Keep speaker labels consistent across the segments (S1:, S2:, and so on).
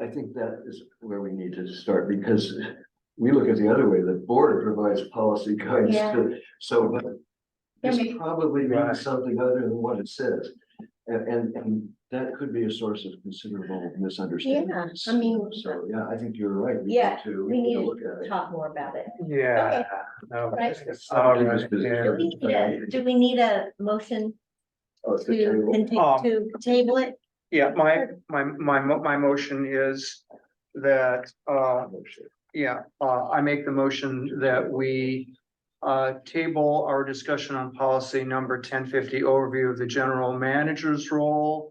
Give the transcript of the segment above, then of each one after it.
S1: I think that is where we need to start, because we look at the other way, the board provides policy guides
S2: Yeah.
S1: to, so.
S2: Yeah,
S1: This
S2: maybe-
S1: probably
S3: Right.
S1: means something other than what it says, and, and, and that could be a source of considerable misunderstanding.
S2: I mean-
S1: So, yeah, I think you're right. We need
S2: Yeah,
S1: to-
S2: we need
S1: to
S2: to
S1: look at it.
S2: talk more about it.
S3: Yeah. Oh,
S2: Okay.
S3: no,
S2: Right.
S3: it's- it's
S1: I don't think
S3: alright,
S1: this business
S2: Do we
S3: yeah.
S2: need a, do we need a motion
S1: Oh, it's the
S2: to,
S1: table.
S2: conti-
S3: Um,
S2: to table it?
S3: Yeah, my, my, my, mo- my motion is that, uh, yeah, uh, I make the motion that we. Uh, table our discussion on policy number ten fifty overview of the general manager's role.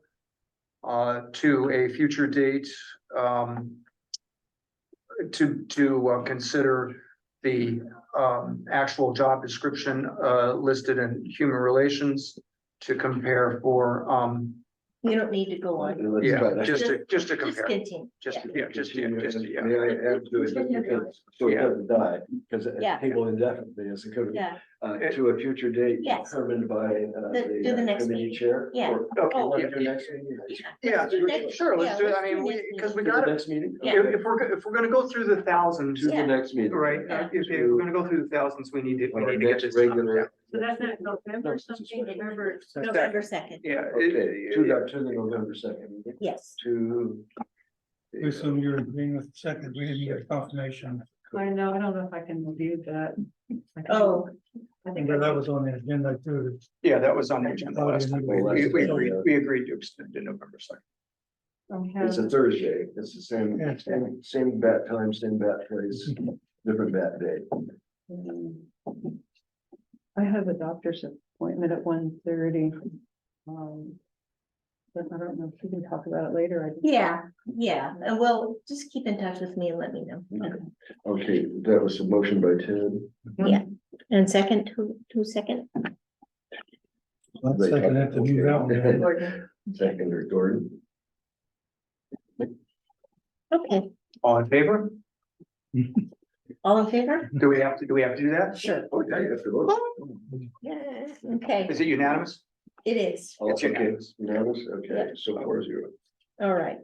S3: Uh, to a future date, um. To, to uh, consider the, um, actual job description, uh, listed in human relations. To compare for, um,
S2: You don't need to go on.
S1: Let's try
S3: yeah,
S1: that.
S3: just to, just to
S2: Just
S3: compare,
S2: continue.
S3: just,
S2: yeah.
S3: yeah, just, yeah,
S1: Continue
S3: just,
S1: and
S3: yeah.
S1: May I add to it,
S2: Continue.
S1: because- so it
S3: Yeah.
S1: doesn't die, because a
S2: Yeah.
S1: table indefinitely is a good,
S2: Yeah,
S1: uh, to a future date.
S2: Yes.
S1: Determined by, uh,
S2: The- do the
S1: the uh,
S2: next
S1: committee
S2: meeting.
S1: chair.
S2: Yeah.
S1: Or-
S3: Okay,
S2: Oh,
S3: yeah,
S1: Do
S3: yeah,
S1: next meeting?
S2: yeah.
S3: yeah,
S2: Let's do next-
S3: sure, let's
S2: yeah,
S3: do it, I
S2: do
S3: mean, we,
S2: next
S3: because we
S1: To the
S3: gotta,
S1: Next meeting?
S2: Yeah.
S1: Okay.
S3: if, if we're, if we're gonna go through the thousands,
S1: To the
S2: Yeah.
S1: next meeting.
S3: right, uh, if, if we're gonna go through the thousands, we need to,
S1: On
S3: we
S1: our
S3: need to get
S1: next
S3: this.
S1: regular.
S4: So that's not
S1: No,
S4: November
S1: it's just-
S4: something, November.
S2: November second,
S3: Yeah. it-
S1: Okay, to the, to the November second, meeting,
S2: yes.
S1: to. uh,
S5: We assume you're agreeing with the second, we didn't get confirmation,
S4: I know, I don't know if I can review that. I think-
S2: Oh.
S4: I think
S5: but that was on the agenda too.
S3: Yeah, that was on the agenda
S5: Oh,
S3: last
S5: yeah,
S3: time,
S5: we-
S3: we, we
S1: we-
S3: agreed, we agreed to extend to November second.
S4: I
S1: It's a
S4: have-
S1: Thursday, it's the same,
S5: Yeah.
S1: same, same bat time, same bat place, different bat day.
S4: I have a doctor's appointment at one thirty. Um. But I don't know if we can talk about it later. I just-
S2: Yeah, yeah, and well, just keep in touch with me and let me know.
S1: Okay, that was a motion by Ted.
S2: And second, two, two second?
S5: Let's second have to move that one. down.
S2: Gordon.
S1: Second or Gordon?
S2: Okay,
S3: All in favor?
S2: all in favor?
S3: Do we have to, do we have to do that?
S2: Sure.
S1: Oh, yeah, you have to vote.
S2: Yeah, okay,
S3: Is it unanimous?
S2: it is,
S1: All
S3: It's
S1: okay,
S3: unanimous.
S1: Unanimous, okay,
S2: Yeah.
S1: so four zero.
S2: all right.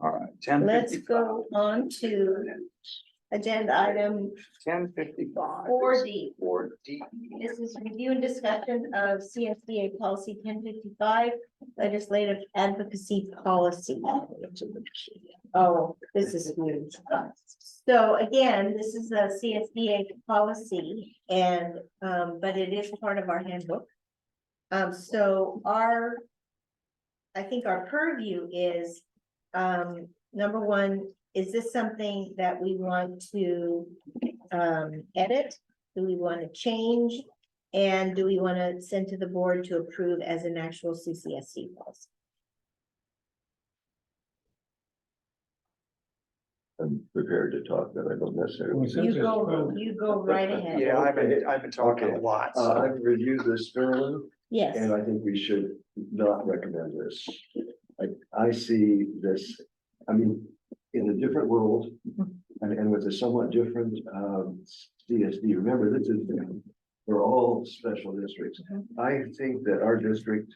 S3: All right. 10:55.
S2: Let's go on to agenda item
S3: Ten fifty-five.
S2: four D.
S3: Four D.
S2: This is review and discussion of CSBA policy ten fifty-five, legislative advocacy policy. Oh, this is new. So again, this is a CSBA policy and, um, but it is part of our handbook. Um, so our, I think our purview is, um, number one, is this something that we want to, um, edit? Do we want to change? And do we want to send to the board to approve as an actual CCSD policy?
S1: I'm prepared to talk, but I don't necessarily.
S5: We said
S2: You
S5: that's
S2: go,
S5: probably-
S2: you go right ahead.
S3: Yeah, I've been, I've been talking a
S1: Okay.
S3: lot,
S1: Uh,
S3: so,
S1: I've reviewed this thoroughly.
S2: Yes,
S1: And I think we should not recommend this. I, I see this, I mean, in a different world and, and with a somewhat different, um, CSD. Remember, this is, we're all special districts. I think that our district,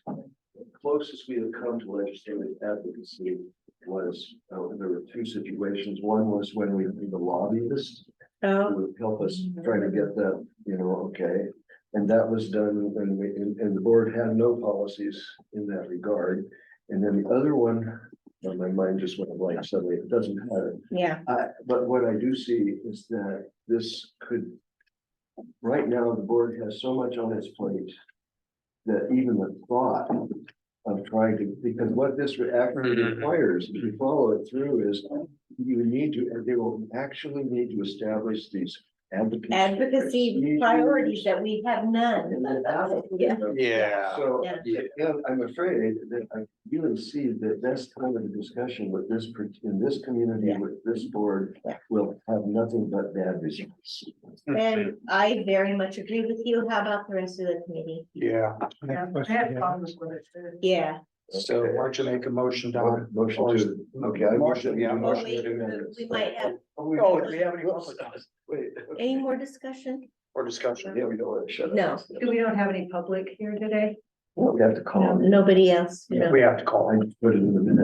S1: closest we have come to legislative advocacy was, uh, there were two situations. One was when we, the lobbyists who
S2: so,
S1: would help us try to get that, you know, okay. And that was done when we, and, and the board had no policies in that regard. And then the other one, uh, my mind just went blank suddenly, it doesn't matter.
S2: yeah,
S1: I but what I do see is that this could. Right now, the board has so much on its plate. That even the thought of trying to, because what this actually
S3: Mhm.
S1: requires, if you follow it through, is. You need to, they will actually need to establish these advocacy.
S2: advocacy
S1: procedures.
S2: priorities that we have none.
S1: And then advocate
S2: Yeah.
S1: them.
S3: yeah.
S1: So,
S2: Yeah.
S3: Yeah.
S1: yeah, I'm afraid that I really see that this kind of discussion with this, per- in this community,
S2: Yeah.
S1: with this board.
S2: Yeah.
S1: Will have nothing but bad results.
S2: And I very much agree with you. How about the rest of the committee?
S3: Yeah,
S5: Next
S4: I
S5: question,
S4: have
S5: yeah.
S4: problems with it. too.
S2: Yeah,
S3: so why don't you make a motion, Don?
S1: Motion to, okay, I
S3: Motion,
S1: motion,
S3: yeah,
S1: yeah,
S2: well,
S3: motion.
S1: motion.
S2: we,
S1: to amend this.
S2: we might have
S1: Oh, we-
S3: Oh, do we have any public comments
S1: Wait,
S2: any more discussion?
S3: or discussion?
S1: yeah, we don't want to shut up.
S2: No.
S4: Do we don't have any public here today?
S1: We have to call.
S2: Nobody else? No.
S3: We have to call.
S1: I put it in the minutes.